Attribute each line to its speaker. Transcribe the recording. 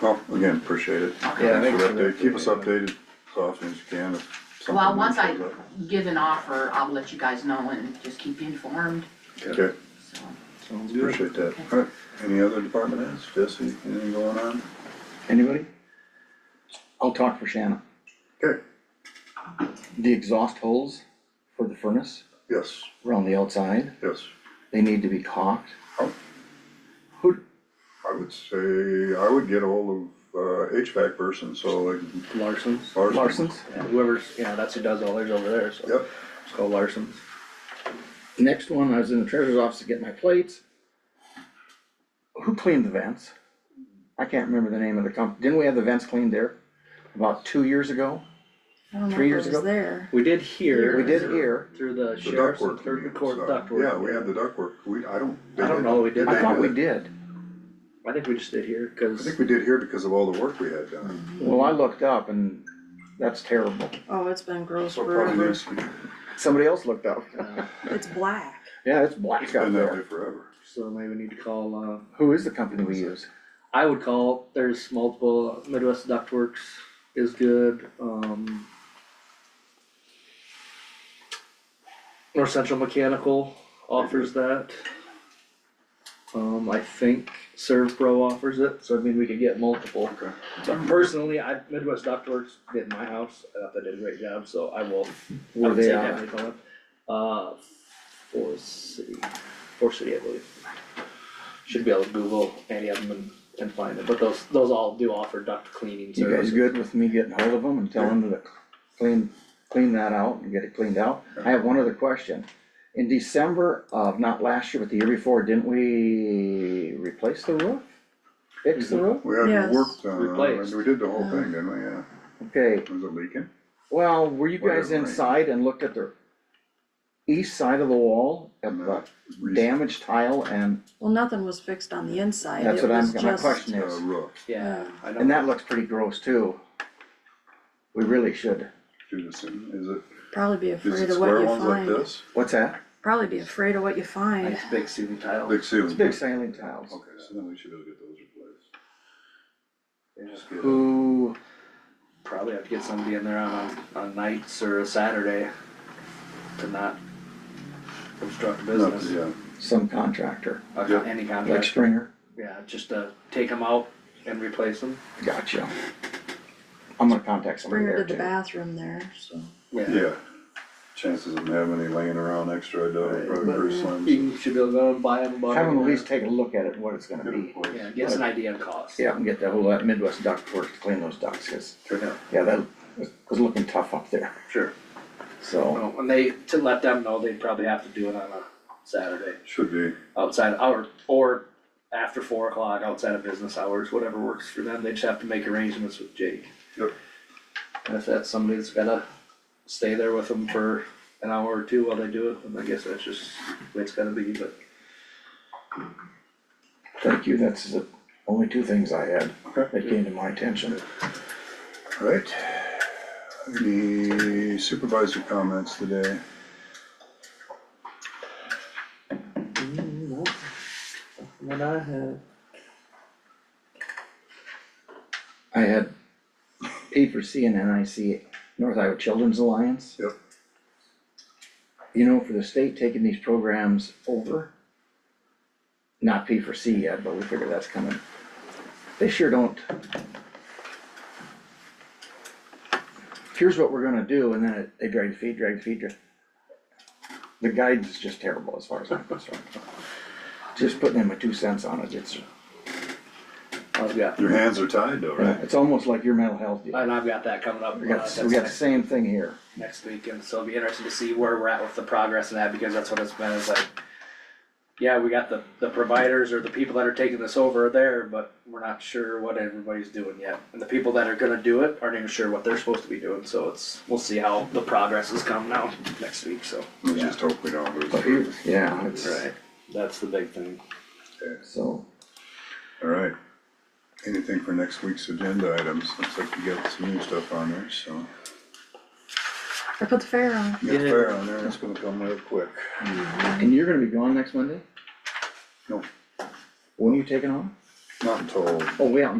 Speaker 1: Well, again, appreciate it.
Speaker 2: Yeah,
Speaker 1: Thanks
Speaker 2: thanks
Speaker 1: for
Speaker 2: for
Speaker 1: the update.
Speaker 2: that.
Speaker 1: Keep us updated as often as you can if something.
Speaker 3: Well, once
Speaker 1: new
Speaker 3: I
Speaker 1: shows up.
Speaker 3: give an offer, I'll let you guys know and just keep you informed,
Speaker 1: Okay,
Speaker 3: so.
Speaker 2: Sounds good.
Speaker 1: appreciate that. All right, any other department heads? Jesse, anything going on?
Speaker 4: Anybody? I'll talk for Shannon.
Speaker 1: Okay,
Speaker 4: The exhaust holes for the furnace
Speaker 1: yes,
Speaker 4: around the outside,
Speaker 1: yes.
Speaker 4: they need to be caulked.
Speaker 1: Oh.
Speaker 4: Who,
Speaker 1: I would say, I would get ahold of uh, HVAC person, so like
Speaker 2: Larson's,
Speaker 1: Larson.
Speaker 4: Larson's?
Speaker 2: Yeah, whoever's, yeah, that's who does all theirs over there, so.
Speaker 1: Yep,
Speaker 2: It's called Larson's.
Speaker 4: Next one, I was in the treasurer's office to get my plates. Who cleaned the vents? I can't remember the name of the company. Didn't we have the vents cleaned there about two years ago?
Speaker 5: I don't know
Speaker 4: Three
Speaker 5: if
Speaker 4: years
Speaker 5: it was
Speaker 4: ago?
Speaker 5: there.
Speaker 2: We did hear.
Speaker 4: We did hear.
Speaker 2: Through the
Speaker 1: the
Speaker 2: sheriff's and
Speaker 1: ductwork.
Speaker 2: through the
Speaker 1: unit
Speaker 2: court
Speaker 1: stuff.
Speaker 2: ductwork.
Speaker 1: Yeah, we had the ductwork. We, I don't. they
Speaker 2: I don't
Speaker 1: did-
Speaker 2: know, we did-
Speaker 4: I
Speaker 1: they
Speaker 4: thought we
Speaker 1: that?
Speaker 4: did.
Speaker 2: I think we just did hear,
Speaker 1: I
Speaker 2: cause
Speaker 1: think we did here because of all the work we had done.
Speaker 4: Well, I looked up and that's terrible.
Speaker 5: Oh, it's been gross
Speaker 1: So it probably
Speaker 5: forever.
Speaker 1: needs to be-
Speaker 4: Somebody else looked up.
Speaker 2: uh,
Speaker 5: It's black.
Speaker 4: Yeah, it's black
Speaker 1: It's
Speaker 4: out
Speaker 1: been that way
Speaker 4: there.
Speaker 1: forever.
Speaker 2: So maybe we need to call, uh,
Speaker 4: Who is the company we use?
Speaker 2: I would call, there's multiple, Midwest Ductworks is good, um. North Central Mechanical offers that. Um, I think Serve Pro offers it, so I mean, we could get multiple.
Speaker 1: Okay.
Speaker 2: But personally, I, Midwest Ductworks did my house, I thought they did a great job, so I will, I
Speaker 4: Were
Speaker 2: would
Speaker 4: they
Speaker 2: say
Speaker 4: out?
Speaker 2: definitely call it. Uh, Four City, Four City, I believe. Should be able to Google any of them and, and find it, but those, those all do offer duct cleaning
Speaker 4: You guys
Speaker 2: services.
Speaker 4: good with me getting hold of them and telling them to clean, clean that out and get it cleaned out? I have one other question. In December of, not last year, but the year before, didn't we replace the roof? Fix the roof?
Speaker 1: We had
Speaker 5: Yes.
Speaker 1: work done, on it, and
Speaker 2: Replaced.
Speaker 1: we did the whole thing, didn't we? Yeah.
Speaker 4: Okay,
Speaker 1: Was it leaking?
Speaker 4: well, were you guys
Speaker 1: Whatever, right.
Speaker 4: inside and looked at the east side of the wall at the damaged tile and
Speaker 5: Well, nothing was fixed on the inside.
Speaker 4: that's
Speaker 5: It
Speaker 4: what I'm,
Speaker 5: was
Speaker 4: my
Speaker 5: just-
Speaker 4: question
Speaker 1: Uh,
Speaker 4: is.
Speaker 1: roof,
Speaker 2: Yeah, I
Speaker 4: And
Speaker 2: don't,
Speaker 4: that looks pretty gross too. We really should.
Speaker 1: Judison, is it,
Speaker 5: Probably be
Speaker 1: is
Speaker 5: afraid
Speaker 1: it
Speaker 5: of what
Speaker 1: square
Speaker 5: you
Speaker 1: ones like
Speaker 5: find.
Speaker 1: this?
Speaker 4: What's that?
Speaker 5: Probably be afraid of what you find.
Speaker 2: it's big ceiling tile.
Speaker 1: Big
Speaker 4: It's
Speaker 1: ceiling.
Speaker 4: big sailing tiles.
Speaker 1: Okay, so then we should be able to get those replaced.
Speaker 2: Yeah.
Speaker 1: Just get-
Speaker 4: Who,
Speaker 2: Probably have to get somebody in there on, on nights or a Saturday to not obstruct
Speaker 1: Not-
Speaker 2: business,
Speaker 1: Yeah,
Speaker 4: some contractor,
Speaker 2: Uh,
Speaker 1: Yeah.
Speaker 2: any
Speaker 4: like
Speaker 2: contract,
Speaker 4: Stringer?
Speaker 2: yeah, just to take them out and replace them,
Speaker 4: Gotcha. I'm gonna contact somebody
Speaker 5: Bring her
Speaker 4: there
Speaker 5: to the
Speaker 4: too.
Speaker 5: bathroom there, so.
Speaker 2: yeah.
Speaker 1: uh, yeah. Chances of them having any laying around extra, I doubt, it, probably
Speaker 2: But
Speaker 1: pretty slim. so
Speaker 2: You should be able to go and buy them.
Speaker 4: Have them at least take a look at it, what it's gonna
Speaker 1: get it
Speaker 4: be.
Speaker 1: replaced.
Speaker 2: Yeah, get us an idea of cost.
Speaker 4: Yeah, and get the whole uh, Midwest duct work to clean those ducts, 'cause,
Speaker 1: Okay.
Speaker 4: yeah, that was- was looking tough up there,
Speaker 2: Sure.
Speaker 4: so.
Speaker 2: Well, And they, to let them know, they'd probably have to do it on a Saturday,
Speaker 1: Should be,
Speaker 2: outside hour, or after four o'clock, outside of business hours, whatever works for them, they just have to make arrangements with Jake.
Speaker 1: Yep.
Speaker 2: And if that's somebody that's gotta stay there with them for an hour or two while they do it, then I guess that's just, the way it's gotta be, but.
Speaker 4: Thank you, that's the only two things I had
Speaker 1: Okay.
Speaker 4: that came to my attention.
Speaker 1: alright. Any supervisor comments today?
Speaker 2: When I have.
Speaker 4: I had P for C and NIC, North Iowa Children's Alliance.
Speaker 1: Yep.
Speaker 4: You know, for the state taking these programs over, not P for C yet, but we figure that's coming. They sure don't. Here's what we're gonna do, and then it- they drag their feet, drag their feet, drag. The guidance is just terrible as far as I'm concerned. Just putting in my two cents on it, it's,
Speaker 2: I've got,
Speaker 1: Your hands are tied though, right?
Speaker 4: it's almost like your mental health. deal.
Speaker 2: and I've got that coming up.
Speaker 4: We
Speaker 2: uh,
Speaker 4: got,
Speaker 2: that's
Speaker 4: we got the
Speaker 2: next-
Speaker 4: same thing here.
Speaker 2: next week, and so it'll be interesting to see where we're at with the progress in that, because that's what it's been, it's like, yeah, we got the, the providers or the people that are taking this over are there, but we're not sure what everybody's doing yet. And the people that are gonna do it aren't even sure what they're supposed to be doing, so it's, we'll see how the progress has come now next week, so.
Speaker 1: Let's just hope we don't lose.
Speaker 4: But here, yeah, it's,
Speaker 2: That's the big thing.
Speaker 4: so,
Speaker 1: Alright. Anything for next week's agenda items? Looks like we got some new stuff on there, so.
Speaker 5: I put the fair on.
Speaker 1: You got
Speaker 2: Yeah.
Speaker 1: fair on there, and it's gonna come real quick.
Speaker 4: and you're gonna be gone next Monday?
Speaker 1: No.
Speaker 4: When are you taking off?
Speaker 1: Not until
Speaker 4: Oh, wait, I'm